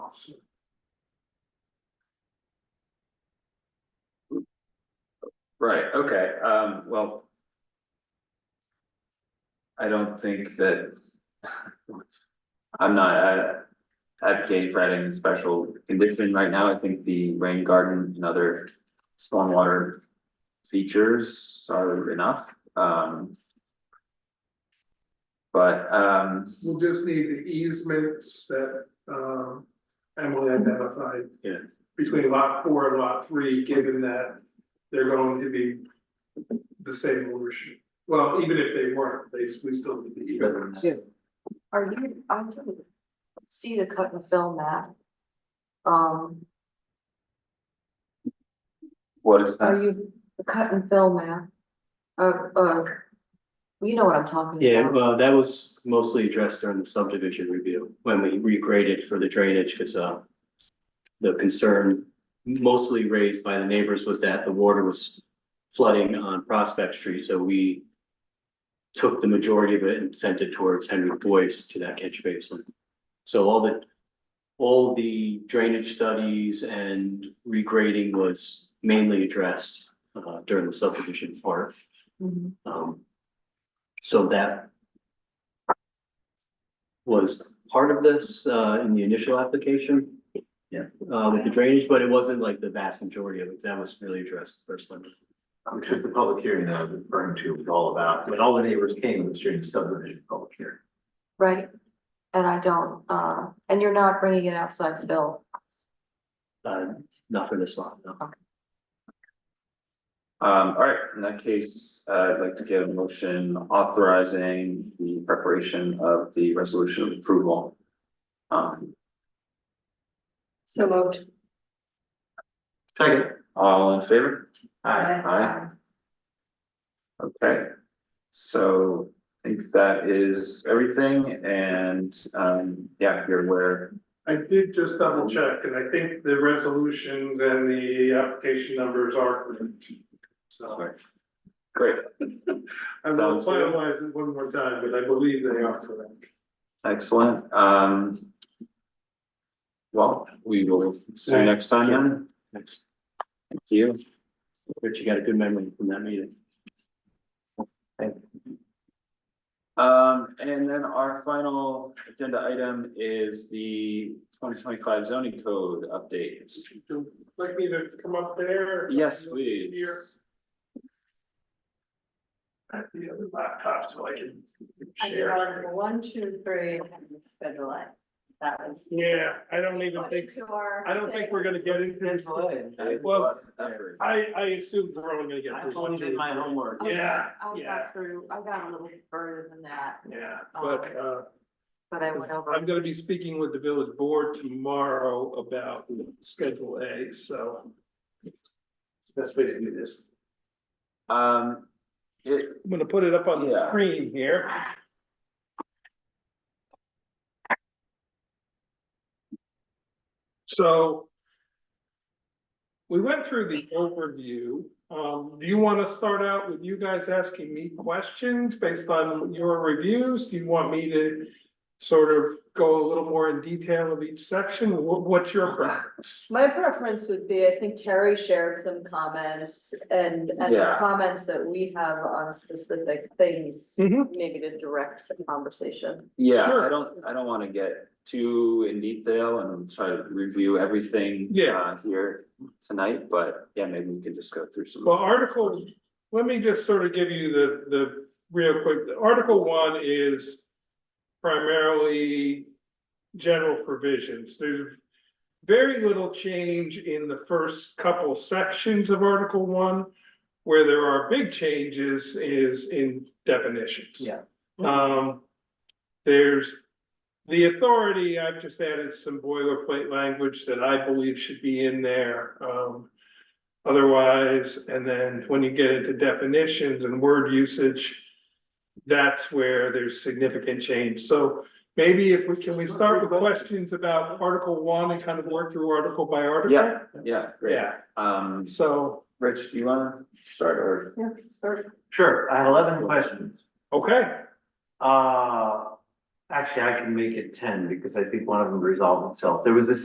Right, okay, um, well. I don't think that. I'm not uh, advocating for adding a special condition right now, I think the rain garden and other stormwater. Features are enough, um. But, um, We'll just need the easements that um Emily identified. Yeah. Between lot four and lot three, given that they're going to be the same ownership. Well, even if they weren't, they we still need the easements. Are you, I didn't see the cut and fill map. Um, what is are that? you, the cut and fill map? Uh, uh, you know what I'm talking Yeah, about. well, that was mostly addressed during the subdivision review, when we regraded for the drainage, because, uh, the concern mostly raised by the neighbors was that the water was flooding on Prospect Street, so we took the majority of it and sent it towards Henry Boyce to that catch basin. So all the, all the drainage studies and regrading was mainly addressed, uh, during the subdivision part. Mhm. Um, so that was part of this, uh, in the initial application. Yeah. Uh, with the drainage, but it wasn't like the vast majority of it. That was really addressed the first time. Which is the public hearing that I was referring to was all about, when all the neighbors came, it was during the subdivision public hearing. Right? And I don't, uh, and you're not bringing it outside fill. Uh, not for this lot, no. Um, all right, in that case, uh, I'd like to get a motion authorizing the preparation of the resolution of approval. Um, So moved. Second. all in favor? Aye. Aye. Okay, so I think that is everything and, um, yeah, you're aware. I did just double check, and I think the resolutions and the application numbers are correct. So Great, I will Sounds good. finalize it one more time, but I believe they are correct. excellent, um. Well, we will see you next time then. Thanks. Thank you. Rich, you got a good memory from that meeting. Um, and then our final agenda item is the twenty twenty-five zoning code updates. Would you Like me to come up there? Yes, please. Here. at the other laptop so I can I did share. article one, two, three, and schedule it. That was. Oh, Yeah, I don't even think, Two are- I don't think we're gonna get into this. Well, I, I assume we're only gonna get. through one, two. homework. Yeah, I yeah. got through, I got a little bit further than that, Yeah, Oh, but, uh, but I went over. I'm gonna be speaking with the village board tomorrow about Schedule A, so. it's the Best way to do this. Um, it, I'm gonna put it up on the Yeah. screen here. So. We went through the overview. Um, do you wanna start out with you guys asking me questions based on your reviews? Do you want me to? Sort of go a little more in detail of each section? What, what's your preference? My preference would be, I think Terry shared some comments and, and the Yeah. comments that we have on specific things, Mhm. maybe to direct the conversation. yeah, I Sure. don't, I don't wanna get too in detail and try to review everything. Yeah. uh, Here tonight, but yeah, maybe we can just go through some. Well, article, let me just sort of give you the, the, real quick, The article one is primarily general provisions, there's very little change in the first couple sections of article one. Where there are big changes is in definitions. Yeah. Um, there's the authority, I've just added some boilerplate language that I believe should be in there, um. Otherwise, and then when you get into definitions and word usage. That's where there's significant change, so maybe if we, can we start with questions about article one and kind of work through article by article? Yeah, yeah, great. Yeah, Um, so, Rich, do you wanna start or? Yes, Sure, I had eleven questions. okay, Uh, actually, I can make it ten because I think one of them resolved itself. There was this